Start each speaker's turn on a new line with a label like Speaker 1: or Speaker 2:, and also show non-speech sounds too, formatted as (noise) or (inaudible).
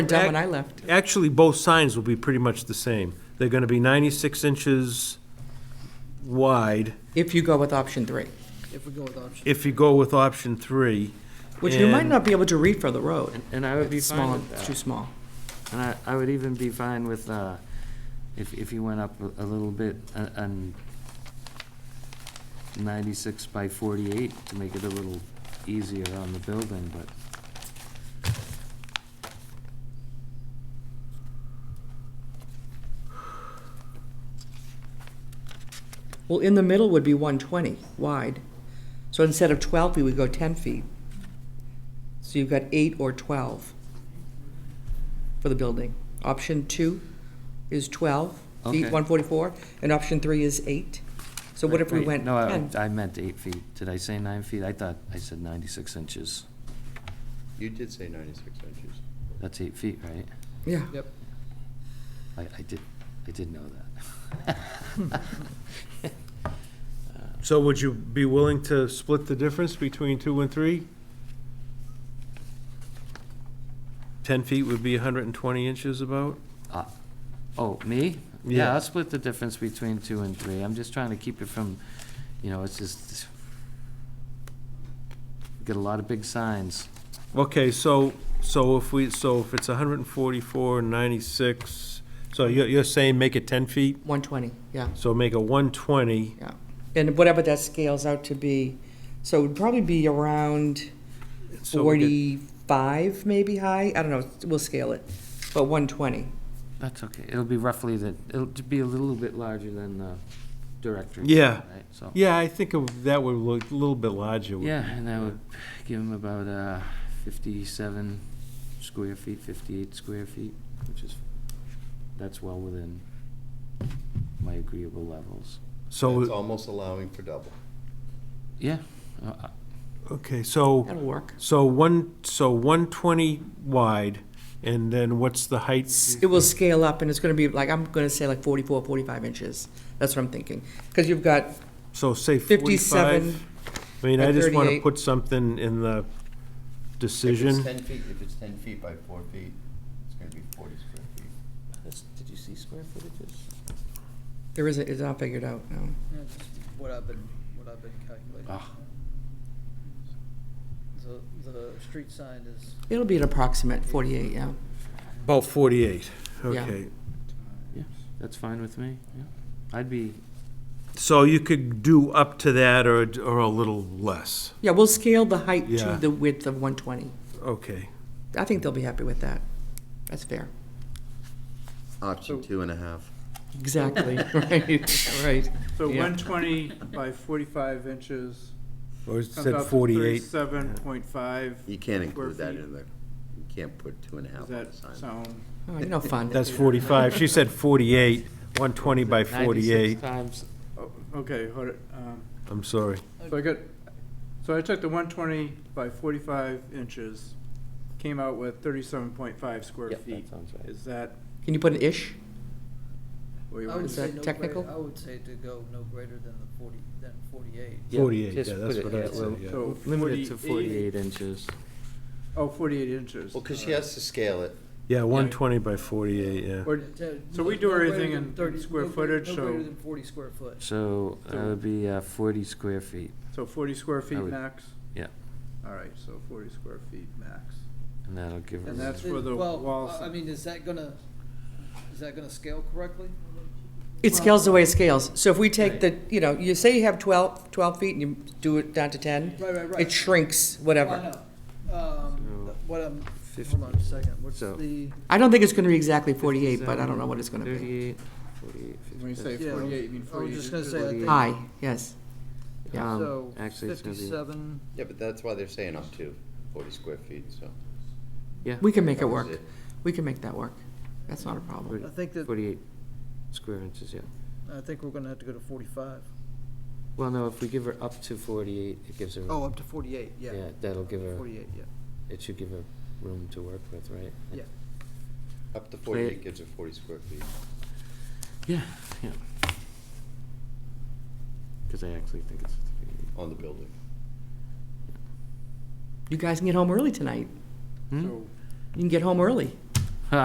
Speaker 1: done when I left.
Speaker 2: Actually, both signs will be pretty much the same. They're going to be 96 inches wide
Speaker 1: If you go with option three,
Speaker 3: if we go with option.
Speaker 2: if you go with option three.
Speaker 1: which you might
Speaker 2: and-
Speaker 1: not be able to read for the road.
Speaker 4: And I would be
Speaker 1: It's small.
Speaker 4: fine with
Speaker 1: It's too
Speaker 4: that.
Speaker 1: small.
Speaker 4: And I, I would even be fine with, uh, if, if you went up a- a little bit uh, and ninety-six by forty-eight to make it a little easier on the building, but
Speaker 1: Well, in the middle would be 120 wide. So instead of 12 feet, we go 10 feet. So you've got eight or 12 for the building. Option two is 12 feet,
Speaker 4: Okay.
Speaker 1: 144, and option three is eight. So what if we
Speaker 4: Right,
Speaker 1: went
Speaker 4: No, I,
Speaker 1: 10?
Speaker 4: I meant eight feet. Did I say nine feet? I thought I said ninety-six inches.
Speaker 5: You did say ninety-six inches.
Speaker 4: That's eight feet, right?
Speaker 1: Yeah.
Speaker 3: Yep.
Speaker 4: I, I did, I did know that. (laughs)
Speaker 2: So would you be willing to split the difference between two and three? 10 feet would be 120 inches about?
Speaker 4: Uh, Oh, me?
Speaker 2: Yeah.
Speaker 4: Yeah, I'll split the difference between two and three. I'm just trying to keep it from, you know, it's just, get a lot of big signs.
Speaker 2: Okay, so, so if we, so if it's 144, 96, so you're, you're saying make it 10 feet?
Speaker 1: 120, yeah,
Speaker 2: So make a 120.
Speaker 1: yeah. And whatever that scales out to be, so it would probably be around
Speaker 2: so we get-
Speaker 1: 45 maybe high? I don't know, we'll scale it, but 120.
Speaker 4: That's okay. It'll be roughly the, it'll be a little bit larger than the directory.
Speaker 2: Yeah.
Speaker 4: Right, so,
Speaker 2: Yeah, I think of- that would look a little bit larger. would-
Speaker 4: yeah, and that would give them about uh, fifty-seven square feet, fifty-eight square feet, which is, that's well within my agreeable levels.
Speaker 5: It's
Speaker 2: So,
Speaker 5: almost allowing for double.
Speaker 4: Yeah, uh, I-
Speaker 2: okay, so,
Speaker 1: That'll work.
Speaker 2: so one, so 120 wide, and then what's the height?
Speaker 1: It will scale up, and it's gonna be like, I'm gonna say like 44, 45 inches. That's what I'm thinking. Because you've got
Speaker 2: So say
Speaker 1: 57
Speaker 2: 45? I mean,
Speaker 1: by
Speaker 2: I just want to
Speaker 1: 38.
Speaker 2: put something in the
Speaker 5: If it's
Speaker 2: decision.
Speaker 5: ten feet, if it's ten feet by four feet, it's gonna be forty square feet.
Speaker 4: Did you see square footages?
Speaker 1: there isn't, it's not figured out, no.
Speaker 3: Yeah, just What I've been, what I've been calculating.
Speaker 4: Ah.
Speaker 3: The, the street sign is,
Speaker 1: It'll be an approximate forty-eight, yeah.
Speaker 2: About 48,
Speaker 1: Yeah.
Speaker 2: okay.
Speaker 4: Yeah, that's fine with me, yeah. I'd be,
Speaker 2: So you could do up to that or, or a little less,
Speaker 1: Yeah, we'll scale the height
Speaker 2: Yeah.
Speaker 1: to the width of one twenty.
Speaker 2: okay.
Speaker 1: I think they'll be happy with that. That's fair.
Speaker 5: Option two and a half.
Speaker 1: Exactly, (laughs) right, right.
Speaker 6: So
Speaker 1: Yeah.
Speaker 6: one twenty by forty-five inches
Speaker 2: Or
Speaker 6: comes out
Speaker 2: said
Speaker 6: to
Speaker 2: 48.
Speaker 6: thirty-seven point five.
Speaker 5: You can't include
Speaker 6: Square
Speaker 5: that
Speaker 6: feet.
Speaker 5: in there. You can't put two and a half
Speaker 6: Does
Speaker 5: on
Speaker 6: that
Speaker 5: the sign.
Speaker 6: sound?
Speaker 1: Oh, you know, fun.
Speaker 2: That's 45, she said 48, 120 by 48,
Speaker 4: times.
Speaker 6: oh, Okay, hold it, um,
Speaker 2: I'm sorry.
Speaker 6: so I got, so I took the one twenty by forty-five inches, came out with thirty-seven point five square
Speaker 4: Yep, that
Speaker 6: feet.
Speaker 4: sounds right.
Speaker 6: Is that
Speaker 1: Can you put an ish?
Speaker 6: what you
Speaker 3: I would
Speaker 6: want?
Speaker 1: Is that
Speaker 3: say no
Speaker 1: technical?
Speaker 3: greater, I would say to go no greater than the forty, than forty-eight.
Speaker 4: Yeah,
Speaker 2: 48,
Speaker 4: just
Speaker 2: yeah, that's
Speaker 4: put it-
Speaker 2: what I
Speaker 4: yeah,
Speaker 2: said,
Speaker 4: well,
Speaker 2: yeah.
Speaker 6: So
Speaker 4: Limit it to
Speaker 6: 48
Speaker 4: forty-eight inches.
Speaker 6: Oh, forty-eight inches.
Speaker 5: Well, cause she has to scale it.
Speaker 2: Yeah, 120 by 48, yeah.
Speaker 6: Or-
Speaker 3: To-
Speaker 6: So we
Speaker 3: no-
Speaker 6: do
Speaker 3: no
Speaker 6: everything
Speaker 3: greater
Speaker 6: in-
Speaker 3: than
Speaker 6: in
Speaker 3: 30
Speaker 6: square
Speaker 3: no greater-
Speaker 6: footage,
Speaker 3: No
Speaker 6: so-
Speaker 3: greater than forty square foot.
Speaker 4: So that would be uh, forty square feet,
Speaker 6: So forty square feet
Speaker 4: would-
Speaker 6: max?
Speaker 4: yeah.
Speaker 6: All right, so forty square feet max.
Speaker 4: and that'll give us,
Speaker 6: And that's for the
Speaker 3: Well,
Speaker 6: walls.
Speaker 3: I I mean, is that gonna, is that gonna scale correctly?
Speaker 1: It scales the way it scales. So if we take the, you know, you say you have 12 12 feet and you do it down to ten,
Speaker 3: Right, right, right.
Speaker 1: it shrinks, whatever.
Speaker 3: Well, I know. Um,
Speaker 4: So-
Speaker 3: what I'm, hold on a second, what's
Speaker 4: So-
Speaker 3: the,
Speaker 1: I don't think it's gonna be exactly forty-eight, but I don't know what it's gonna be.
Speaker 4: thirty-eight, forty-eight,
Speaker 6: When you say
Speaker 4: fifty.
Speaker 3: Yeah, I was-
Speaker 6: forty-eight, you mean
Speaker 3: I was
Speaker 6: forty-eight
Speaker 3: just gonna
Speaker 6: inches?
Speaker 3: say, I think-
Speaker 1: High, yes. Um, Yeah.
Speaker 3: so
Speaker 4: Um, Actually, it's gonna be,
Speaker 3: fifty-seven,
Speaker 5: Yeah, but that's why they're saying up to forty square feet, so.
Speaker 4: yeah,
Speaker 1: We can make it
Speaker 5: covers
Speaker 1: work. We can make that work. That's not a problem.
Speaker 3: I think that,
Speaker 4: forty-eight square inches, yeah.
Speaker 3: I think we're gonna have to go to forty-five.
Speaker 4: Well, no, if we give her up to forty-eight, it gives her,
Speaker 3: Oh, up to forty-eight, yeah.
Speaker 4: yeah, that'll give her,
Speaker 3: Forty-eight, yeah.
Speaker 4: it should give her room to work with, right?
Speaker 3: Yeah.
Speaker 5: Up to forty-eight gives her forty square feet.
Speaker 4: Yeah, yeah. Because I actually think it's forty-eight.
Speaker 5: on the building.
Speaker 1: You guys can get home early tonight.
Speaker 4: Hmm?
Speaker 6: So
Speaker 1: You can get home early.